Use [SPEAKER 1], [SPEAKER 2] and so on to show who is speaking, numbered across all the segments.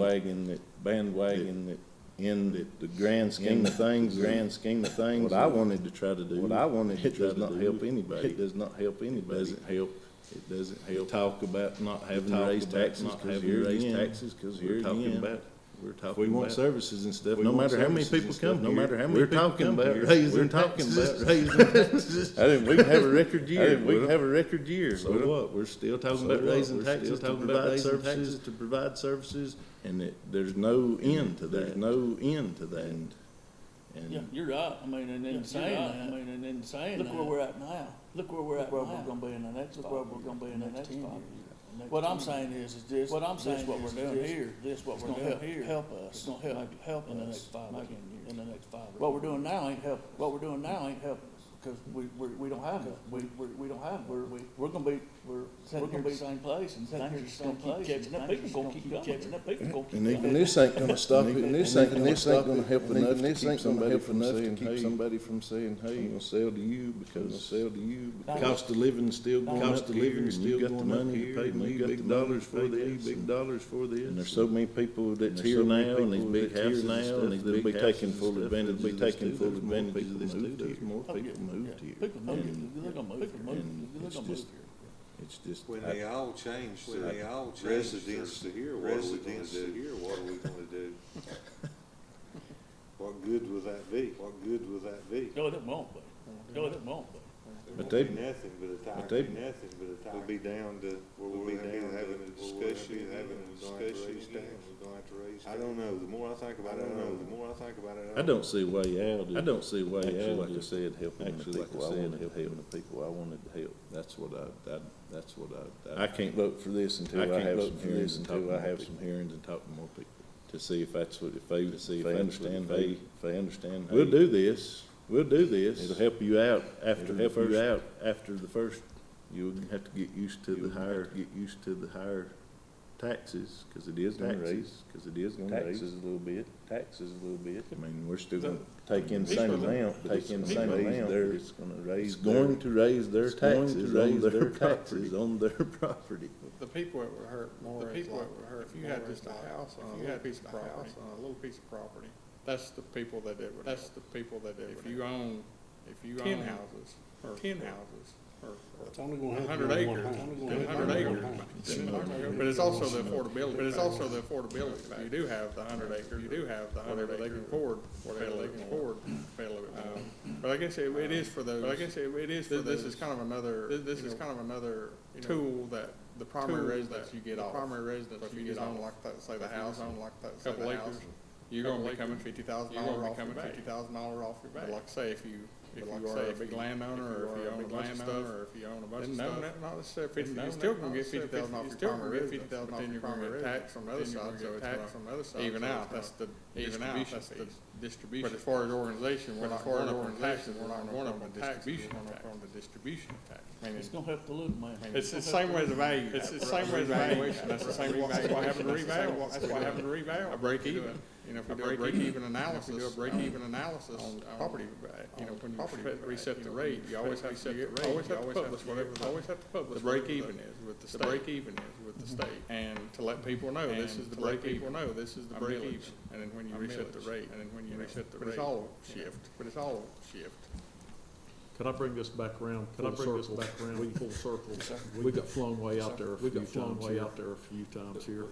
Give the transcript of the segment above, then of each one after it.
[SPEAKER 1] bandwagon that, bandwagon that, in that the grand scheme of things, grand scheme of things. What I wanted to try to do. What I wanted to try to do. It does not help anybody. It does not help anybody. Doesn't help. It doesn't help. Talk about not having to raise taxes, cause here again. Taxes, cause here again. We're talking about. We want services and stuff, no matter how many people come No matter how many people come here. We're talking about raising taxes. I didn't, we can have a record year. We can have a record year. So what? We're still talking about raising taxes, talking about raising taxes to provide services. And it, there's no end to that. There's no end to that. And,
[SPEAKER 2] Yeah, you're right. I mean, and then saying that, I mean, and then saying that.
[SPEAKER 3] Look where we're at now.
[SPEAKER 2] Look where we're at
[SPEAKER 3] Where we're
[SPEAKER 2] now.
[SPEAKER 3] gonna be in the next
[SPEAKER 2] Look
[SPEAKER 3] five.
[SPEAKER 2] where we're gonna be in the next
[SPEAKER 3] 10
[SPEAKER 2] five.
[SPEAKER 3] years.
[SPEAKER 2] What I'm saying is, is this,
[SPEAKER 3] What I'm
[SPEAKER 2] this
[SPEAKER 3] saying
[SPEAKER 2] what
[SPEAKER 3] is,
[SPEAKER 2] we're
[SPEAKER 3] is
[SPEAKER 2] doing
[SPEAKER 3] this-
[SPEAKER 2] here, this what
[SPEAKER 3] It's
[SPEAKER 2] we're
[SPEAKER 3] gonna
[SPEAKER 2] doing
[SPEAKER 3] help-
[SPEAKER 2] here.
[SPEAKER 3] help us.
[SPEAKER 2] It's gonna
[SPEAKER 3] Maybe-
[SPEAKER 2] help, help
[SPEAKER 3] in the
[SPEAKER 2] us
[SPEAKER 3] next five
[SPEAKER 2] maybe
[SPEAKER 3] years.
[SPEAKER 2] in the next five. What we're doing now ain't help, what we're doing now ain't help us, because we, we, we don't have, it. we, we, we don't have, it. we're, we, we're gonna be, we're,
[SPEAKER 3] Sitting
[SPEAKER 2] we're gonna
[SPEAKER 3] here-
[SPEAKER 2] be same place and things
[SPEAKER 3] sitting
[SPEAKER 2] are
[SPEAKER 3] here
[SPEAKER 2] just gonna
[SPEAKER 3] gonna
[SPEAKER 2] keep
[SPEAKER 3] keep
[SPEAKER 2] catching
[SPEAKER 3] catching up.
[SPEAKER 2] up. People gonna keep catching up. People gonna keep
[SPEAKER 4] And
[SPEAKER 2] catching
[SPEAKER 4] even
[SPEAKER 2] up.
[SPEAKER 4] this ain't gonna stop it, and this ain't, and this ain't gonna help
[SPEAKER 1] and
[SPEAKER 4] enough
[SPEAKER 1] even
[SPEAKER 4] to
[SPEAKER 1] this
[SPEAKER 4] keep
[SPEAKER 1] ain't gonna
[SPEAKER 4] somebody
[SPEAKER 1] help
[SPEAKER 4] from
[SPEAKER 1] enough to
[SPEAKER 4] saying,
[SPEAKER 1] keep
[SPEAKER 4] hey, I'm
[SPEAKER 1] somebody from saying, hey.
[SPEAKER 4] gonna sell to you
[SPEAKER 1] Gonna
[SPEAKER 4] because
[SPEAKER 1] sell to you because.
[SPEAKER 2] Cost
[SPEAKER 1] of living still
[SPEAKER 4] going up here, and you got the money to pay, and you got the dollars for this,
[SPEAKER 1] big
[SPEAKER 4] and-
[SPEAKER 1] dollars for this. And there's so many people that's here
[SPEAKER 4] so many
[SPEAKER 1] now and these
[SPEAKER 4] people
[SPEAKER 1] big
[SPEAKER 4] that's here
[SPEAKER 1] houses and
[SPEAKER 4] now,
[SPEAKER 1] stuff
[SPEAKER 4] and these
[SPEAKER 1] that'll
[SPEAKER 4] big
[SPEAKER 1] be
[SPEAKER 4] houses
[SPEAKER 1] taking
[SPEAKER 4] and
[SPEAKER 1] full
[SPEAKER 4] stuff
[SPEAKER 1] advantage, be
[SPEAKER 4] that'll be
[SPEAKER 1] taking
[SPEAKER 4] taking
[SPEAKER 1] full
[SPEAKER 4] full
[SPEAKER 1] advantage of
[SPEAKER 4] advantage
[SPEAKER 1] this
[SPEAKER 4] of
[SPEAKER 1] too.
[SPEAKER 4] this
[SPEAKER 1] There's
[SPEAKER 4] too.
[SPEAKER 1] more
[SPEAKER 2] Oh, yeah,
[SPEAKER 1] people moved
[SPEAKER 2] yeah.
[SPEAKER 1] here.
[SPEAKER 2] People moved here.
[SPEAKER 1] And
[SPEAKER 2] They're gonna move here.
[SPEAKER 1] and
[SPEAKER 2] They're
[SPEAKER 1] it's
[SPEAKER 2] gonna move
[SPEAKER 1] just-
[SPEAKER 2] here.
[SPEAKER 1] It's just,
[SPEAKER 5] When
[SPEAKER 1] I-
[SPEAKER 5] they all change
[SPEAKER 6] When they
[SPEAKER 5] to
[SPEAKER 6] all change to
[SPEAKER 5] residents to here, what are we gonna
[SPEAKER 6] residents to
[SPEAKER 5] do?
[SPEAKER 6] here, what are we gonna do?
[SPEAKER 5] What good will that be? What good will that be?
[SPEAKER 2] No, it won't be. No, it won't be.
[SPEAKER 1] But they-
[SPEAKER 5] There won't be nothing but a
[SPEAKER 1] but
[SPEAKER 5] tire,
[SPEAKER 1] they-
[SPEAKER 5] nothing but a tire. We'll be down to, we'll be down to having a discussion, having a discussion again. We're gonna have to raise. I don't know, the more I think about it, I don't know, the more I think about it.
[SPEAKER 1] I don't see a way out. of-
[SPEAKER 4] I don't see a way
[SPEAKER 1] Actually,
[SPEAKER 4] out
[SPEAKER 1] like I
[SPEAKER 4] of-
[SPEAKER 1] said, helping the
[SPEAKER 4] actually, like I
[SPEAKER 1] people I
[SPEAKER 4] said,
[SPEAKER 1] wanted to
[SPEAKER 4] helping
[SPEAKER 1] help. The people I wanted to help. That's what I, that, that's what I.
[SPEAKER 4] I can't vote for this until I
[SPEAKER 1] can't
[SPEAKER 4] have
[SPEAKER 1] vote
[SPEAKER 4] some
[SPEAKER 1] for
[SPEAKER 4] hearings
[SPEAKER 1] this
[SPEAKER 4] and talk
[SPEAKER 1] until I
[SPEAKER 4] more
[SPEAKER 1] have
[SPEAKER 4] people.
[SPEAKER 1] some hearings and talk to more people.
[SPEAKER 4] To see if that's what, if they,
[SPEAKER 1] To see if
[SPEAKER 4] I
[SPEAKER 1] I
[SPEAKER 4] understand,
[SPEAKER 1] understand,
[SPEAKER 4] they,
[SPEAKER 1] hey,
[SPEAKER 4] if they understand.
[SPEAKER 1] We'll
[SPEAKER 4] hey,
[SPEAKER 1] do this, we'll do this.
[SPEAKER 4] It'll help you out after
[SPEAKER 1] It'll
[SPEAKER 4] the
[SPEAKER 1] help you
[SPEAKER 4] first,
[SPEAKER 1] out after the first, you'll have to get used to You'll the have higher, to get used to the higher taxes, cause it is
[SPEAKER 4] Gonna
[SPEAKER 1] taxes,
[SPEAKER 4] raise.
[SPEAKER 1] cause it is
[SPEAKER 4] Gonna raise.
[SPEAKER 1] taxes a little bit, taxes a little bit.
[SPEAKER 4] I mean, we're still
[SPEAKER 1] But-
[SPEAKER 4] gonna take in the same
[SPEAKER 1] It's gonna-
[SPEAKER 4] amount, take in the same
[SPEAKER 1] raise
[SPEAKER 4] amount.
[SPEAKER 1] their-
[SPEAKER 4] It's gonna
[SPEAKER 1] It's
[SPEAKER 4] raise.
[SPEAKER 1] going to raise their
[SPEAKER 4] It's going to
[SPEAKER 1] taxes on
[SPEAKER 4] raise
[SPEAKER 1] their
[SPEAKER 4] their
[SPEAKER 1] taxes,
[SPEAKER 4] taxes.
[SPEAKER 1] on their property.
[SPEAKER 7] The people that were hurt, the people that were hurt, if you had just a house, if you had just a house on a little piece of property, that's the people that it would, that's the people that it If you own, if you own. Ten houses, or ten houses, or. It's only gonna happen Hundred acres, two hundred acres. But it's also the affordability, but it's also the affordability factor. You do have the hundred acres, you do have the hundred acre. They can afford, whatever they can afford. Um, But I guess it, it is for those. But I guess it, it is for This is kind of another. This is kind of another tool that the primary residence you get off. Primary residence you get off. Like that, say the house, on like that, say the house. You're gonna be coming fifty thousand dollar off your back. Fifty thousand dollar off your back. But like say if you, if you are a big landowner or if you own a bunch of stuff. Or if you own a bunch of stuff. No, not necessarily fifty, you're still gonna get fifty thousand off your primary residence. But then you're gonna get taxed on the other side, so it's gonna even out. That's the distribution piece distribution. But as far as organization, we're not going up on taxes, we're not going up on distribution tax. On the distribution tax. I mean,
[SPEAKER 2] It's gonna help the little man.
[SPEAKER 7] it's the same way as a value. It's the same way as valuation. That's the same, that's why I have to revalue. That's why I have to revalue. A break even, you know, if we do a break even analysis. do a break even analysis. On property, you know, when you reset the rate, you always have to, you always have to publish whatever, always have to publish. The break even is with the state. The break even is with the state. And to let people know, this is the break even. People know, this is the break even. And then when you reset the rate. And then when you reset the rate. But it's all shift, but it's all shift.
[SPEAKER 8] Can I bring this back around? Can I bring this back around full circle? We got flown way out there a few times here. out there a few times here.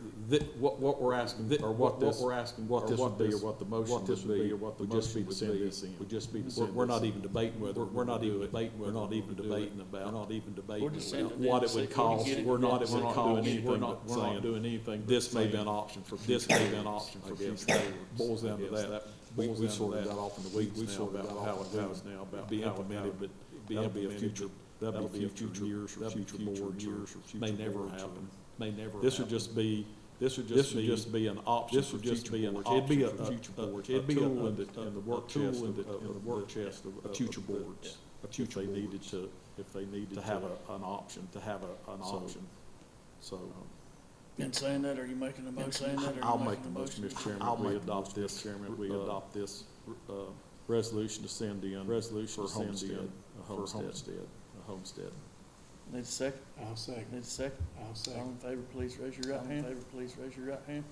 [SPEAKER 9] what, what we're asking, or what this, we're asking,
[SPEAKER 8] what this would be, or
[SPEAKER 9] what the
[SPEAKER 8] motion would be, would just be to send this in.
[SPEAKER 9] Would just be to
[SPEAKER 8] We're-
[SPEAKER 9] send
[SPEAKER 8] we're
[SPEAKER 9] this
[SPEAKER 8] not
[SPEAKER 9] in.
[SPEAKER 8] even debating whether
[SPEAKER 9] We're, we're
[SPEAKER 8] we're
[SPEAKER 9] not
[SPEAKER 8] gonna
[SPEAKER 9] even
[SPEAKER 8] do it.
[SPEAKER 9] debating, we're not even
[SPEAKER 8] gonna do it.
[SPEAKER 9] debating about, we're not even debating
[SPEAKER 2] We're just saying
[SPEAKER 9] about
[SPEAKER 2] that
[SPEAKER 9] what
[SPEAKER 2] it's
[SPEAKER 9] it would
[SPEAKER 2] sick. We can
[SPEAKER 9] cost,
[SPEAKER 2] get it
[SPEAKER 9] we're not
[SPEAKER 2] done.
[SPEAKER 9] even
[SPEAKER 2] We're not
[SPEAKER 9] calling
[SPEAKER 8] doing anything
[SPEAKER 9] anything
[SPEAKER 8] but saying,
[SPEAKER 9] but saying, this may be an option for, this may be an option for future. That Boils down to that. We, we sort of got off in the weeds
[SPEAKER 8] We
[SPEAKER 9] now
[SPEAKER 8] sort of
[SPEAKER 9] about
[SPEAKER 8] got
[SPEAKER 9] how
[SPEAKER 8] off
[SPEAKER 9] it
[SPEAKER 8] in the
[SPEAKER 9] would
[SPEAKER 8] weeds now about
[SPEAKER 9] be
[SPEAKER 8] how it- how
[SPEAKER 9] implemented,
[SPEAKER 8] it-
[SPEAKER 9] but be
[SPEAKER 8] that'll be a
[SPEAKER 9] implemented,
[SPEAKER 8] future-
[SPEAKER 9] but that'll
[SPEAKER 8] that'll
[SPEAKER 9] be a future years or future boards or may never happen, may never
[SPEAKER 8] This would
[SPEAKER 9] happen.
[SPEAKER 8] just be,
[SPEAKER 9] This would
[SPEAKER 8] this
[SPEAKER 9] just
[SPEAKER 8] would
[SPEAKER 9] be.
[SPEAKER 8] just be an option
[SPEAKER 9] This
[SPEAKER 8] for
[SPEAKER 9] would just be
[SPEAKER 8] future
[SPEAKER 9] an
[SPEAKER 8] boards. It'd be
[SPEAKER 9] option
[SPEAKER 8] a,
[SPEAKER 9] for future
[SPEAKER 8] a- a-
[SPEAKER 9] boards.
[SPEAKER 8] it'd be a,
[SPEAKER 9] tool
[SPEAKER 8] a-
[SPEAKER 9] in the,
[SPEAKER 8] a-
[SPEAKER 9] in the
[SPEAKER 8] a
[SPEAKER 9] work
[SPEAKER 8] tool
[SPEAKER 9] chest
[SPEAKER 8] in
[SPEAKER 9] of,
[SPEAKER 8] the-
[SPEAKER 9] of-
[SPEAKER 8] in
[SPEAKER 9] of the work chest of,
[SPEAKER 8] of
[SPEAKER 9] future
[SPEAKER 8] future
[SPEAKER 9] boards.
[SPEAKER 8] boards.
[SPEAKER 9] If they needed to, if they needed to have a, an option, to have a, an
[SPEAKER 8] So-
[SPEAKER 9] option.
[SPEAKER 8] Um,
[SPEAKER 9] So,
[SPEAKER 2] And saying that, are you making a motion?
[SPEAKER 9] I'll make the motion, Mr. Chairman.
[SPEAKER 8] I'll
[SPEAKER 9] We
[SPEAKER 8] make the
[SPEAKER 9] adopt this, Chairman. We
[SPEAKER 8] uh,
[SPEAKER 9] adopt this, uh, resolution to send in. Resolution
[SPEAKER 8] for homestead, for
[SPEAKER 9] For homestead,
[SPEAKER 8] homestead.
[SPEAKER 9] a homestead.
[SPEAKER 2] Need a second?
[SPEAKER 7] I'll second,
[SPEAKER 2] Need a second?
[SPEAKER 7] I'll
[SPEAKER 2] All in favor, please raise your right hand. All in favor, please raise your right hand.